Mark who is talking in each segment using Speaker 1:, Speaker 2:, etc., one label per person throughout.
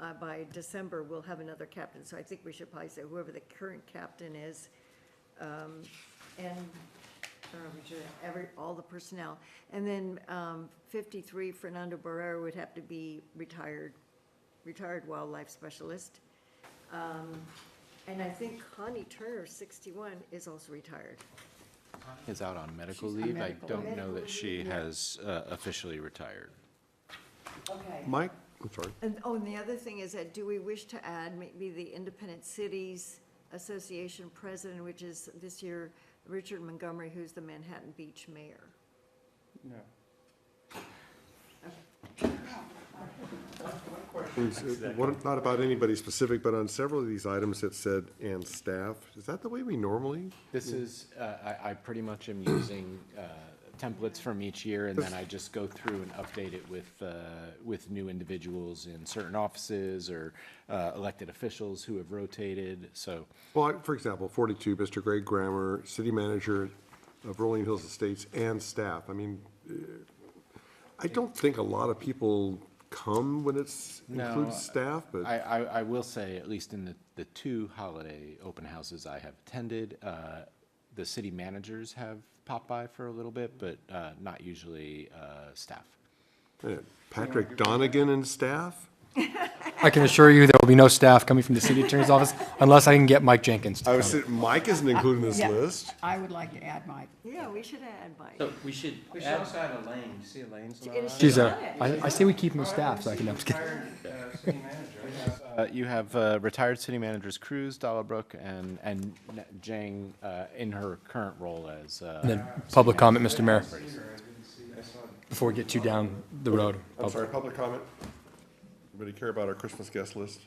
Speaker 1: that uh, by December, we'll have another captain. So I think we should probably say whoever the current captain is, um, and, or we should, every, all the personnel. And then, um, fifty-three, Fernando Barrera would have to be retired, retired wildlife specialist. Um, and I think Connie Turner, sixty-one, is also retired.
Speaker 2: is out on medical
Speaker 3: She's on
Speaker 2: leave. I
Speaker 3: medical
Speaker 2: don't
Speaker 1: leave.
Speaker 2: know that she
Speaker 1: Medical leave, yeah.
Speaker 2: has uh, officially retired.
Speaker 1: Okay.
Speaker 3: Mike, I'm sorry.
Speaker 1: And, oh, and the other thing is that, do we wish to add maybe the Independent Cities Association president, which is this year Richard Montgomery, who's the Manhattan Beach mayor?
Speaker 4: No.
Speaker 3: Is it- what- Not about anybody specific, but on several of these items it said, and staff, is that the way we normally?
Speaker 2: This is, uh, I, I pretty much am using uh, templates from each year, and then I just go through and update it with, uh, with new individuals in certain offices or uh, elected officials who have rotated, so.
Speaker 3: Well, I- for example, forty-two, Mr. Greg Grammer, city manager of Rolling Hills Estates and staff. I mean, eh, I don't think a lot of people come when it's,
Speaker 2: No,
Speaker 3: includes staff,
Speaker 2: I,
Speaker 3: but
Speaker 2: I, I will say, at least in the, the two holiday open houses I have attended, uh, the city managers have popped by for a little bit, but, uh, not usually, uh, staff.
Speaker 3: eh, Patrick Donegan and staff?
Speaker 5: I can assure you there will be no staff coming from the city attorney's office unless I can get Mike Jenkins to
Speaker 3: I
Speaker 5: come.
Speaker 3: was, Mike isn't included in this
Speaker 6: Yeah.
Speaker 3: list.
Speaker 6: I would like to add Mike.
Speaker 1: Yeah, we should add Mike.
Speaker 7: So we should
Speaker 4: We should
Speaker 7: add,
Speaker 4: also add Elaine, you see Elaine's not on it?
Speaker 5: uh, She's a, I, I say we keep him as staff, so I can, I'm
Speaker 4: She's
Speaker 5: just kidding.
Speaker 4: retired, uh, city manager. We have, uh,
Speaker 2: Uh, you have, uh, retired city managers Cruz, Dahlbrook, and, and Jang, uh, in her current role as, uh.
Speaker 5: And then public comment, Mr. Mayor,
Speaker 4: Peter, I didn't see- I saw it.
Speaker 5: before we get too down the road.
Speaker 3: I'm sorry, public comment? Anybody care about our Christmas guest list?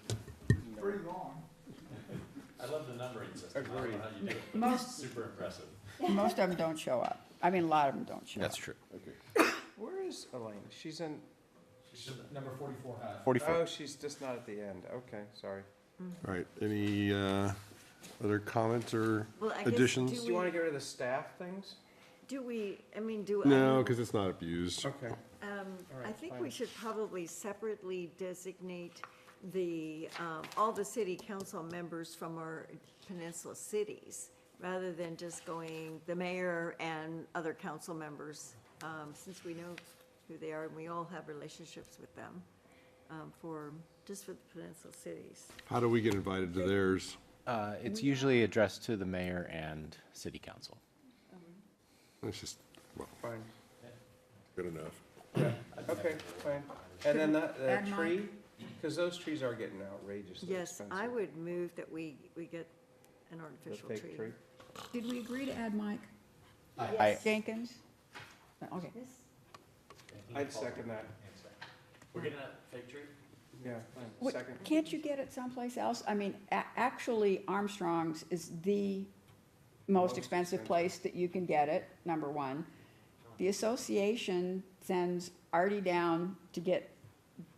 Speaker 6: Pretty long.
Speaker 7: I love the numbering system. I don't know how you do it, but it's
Speaker 6: Most,
Speaker 7: super impressive.
Speaker 6: most of them don't show up. I mean, a lot of them don't show up.
Speaker 2: true.
Speaker 4: Where is Elaine? She's in,
Speaker 7: Number forty-four.
Speaker 4: oh, she's just not at the end. Okay, sorry.
Speaker 3: All right, any uh, other comments or
Speaker 1: Well, I guess
Speaker 3: additions?
Speaker 1: do
Speaker 4: Do you want to get rid of the staff things?
Speaker 1: Do we, I mean, do,
Speaker 3: No,
Speaker 1: I-
Speaker 3: because it's not abused.
Speaker 4: Okay.
Speaker 1: um, I
Speaker 4: right,
Speaker 1: think
Speaker 4: fine.
Speaker 1: we should probably separately designate the, um, all the city council members from our peninsula cities, rather than just going the mayor and other council members, um, since we know who they are and we all have relationships with them, um, for, just for the peninsula cities.
Speaker 3: How do we get invited to theirs?
Speaker 2: Uh, it's usually addressed to the mayor and city council.
Speaker 3: It's just, well,
Speaker 4: Fine.
Speaker 3: good enough.
Speaker 4: Okay, fine. And then that,
Speaker 6: Add
Speaker 4: the
Speaker 6: mine.
Speaker 4: tree, because those trees are getting outrageously
Speaker 1: Yes,
Speaker 4: expensive.
Speaker 1: I would move that we, we get an
Speaker 4: The
Speaker 1: artificial
Speaker 4: fake
Speaker 1: tree.
Speaker 4: tree.
Speaker 6: Did we agree to add Mike
Speaker 2: I,
Speaker 6: Jenkins? Okay.
Speaker 4: I'd second that.
Speaker 7: We're getting a fake tree?
Speaker 4: Yeah, fine.
Speaker 6: What-
Speaker 4: second.
Speaker 6: Can't you get it someplace else? I mean, a- actually Armstrong's is the most expensive place that you can get it, number one. The association sends Artie down to get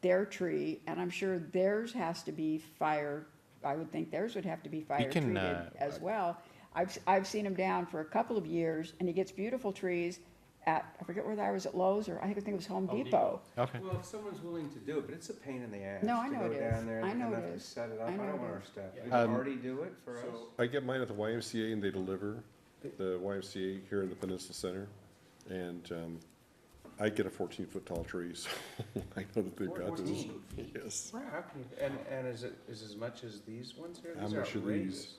Speaker 6: their tree, and I'm sure theirs has to be fire, I would think theirs would have to be fire
Speaker 2: can,
Speaker 6: treated
Speaker 2: uh,
Speaker 6: as well. I've, s- I've seen him down for a couple of years, and he gets beautiful trees at, I forget where I was, at Lowe's, or I think it was Home
Speaker 7: Home
Speaker 6: Depot.
Speaker 2: okay.
Speaker 4: Well, if someone's willing to do it, but it's a pain in the ass.
Speaker 6: No, I know
Speaker 4: To
Speaker 6: it
Speaker 4: go
Speaker 6: is.
Speaker 4: down there
Speaker 6: I
Speaker 4: and
Speaker 6: know
Speaker 4: and
Speaker 6: it
Speaker 4: have to
Speaker 6: is.
Speaker 4: set it up.
Speaker 6: I
Speaker 4: I
Speaker 6: know
Speaker 4: don't
Speaker 6: it
Speaker 4: want our
Speaker 6: is.
Speaker 4: staff. Would you
Speaker 2: Um,
Speaker 4: already do it for us?
Speaker 3: I get mine at the YMCA and they deliver, the YMCA here in the Peninsula Center. And um, I get a fourteen-foot tall tree, so I know that they've got this.
Speaker 4: 14
Speaker 3: Yes.
Speaker 4: How can you, and, and is it, is as much as these ones here?
Speaker 3: How
Speaker 4: These are
Speaker 3: much are these?
Speaker 4: outrageous.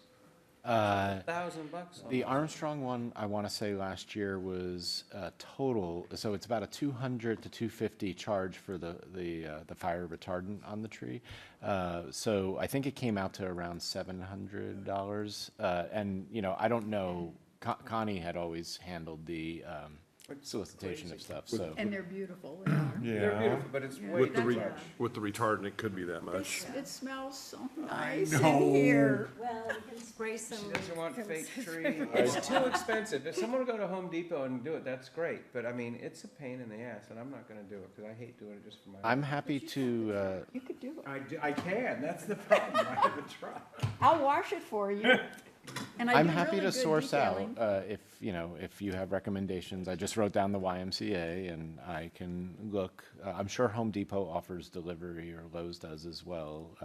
Speaker 2: Uh,
Speaker 4: Thousand bucks on
Speaker 2: The
Speaker 4: them.
Speaker 2: Armstrong one, I want to say last year was a total, so it's about a two hundred to two fifty charge for the, the, uh, the fire retardant on the tree. Uh, so I think it came out to around seven hundred dollars. Uh, and, you know, I don't know, Con- Connie had always handled the, um, solicitation of stuff, so.
Speaker 6: And they're beautiful.
Speaker 4: They're beautiful, but it's way
Speaker 3: With the,
Speaker 4: too
Speaker 3: re-
Speaker 4: much.
Speaker 3: with the retardant, it could be that much.
Speaker 6: It smells so nice in here.
Speaker 1: Well, we can spray some.
Speaker 4: She doesn't want fake tree. It's too expensive. If someone would go to Home Depot and do it, that's great, but I mean, it's a pain in the ass, and I'm not gonna do it, cause I hate doing it just for my.
Speaker 2: I'm happy to, uh,
Speaker 6: You could do it.
Speaker 4: I, do- I can, that's the problem. I haven't tried.
Speaker 6: I'll wash it for you. And I
Speaker 2: I'm
Speaker 6: do
Speaker 2: happy
Speaker 6: really
Speaker 2: to
Speaker 6: good
Speaker 2: source out,
Speaker 6: detailing.
Speaker 2: uh, if, you know, if you have recommendations, I just wrote down the YMCA and I can look. Uh, I'm sure Home Depot offers delivery or Lowe's does as well.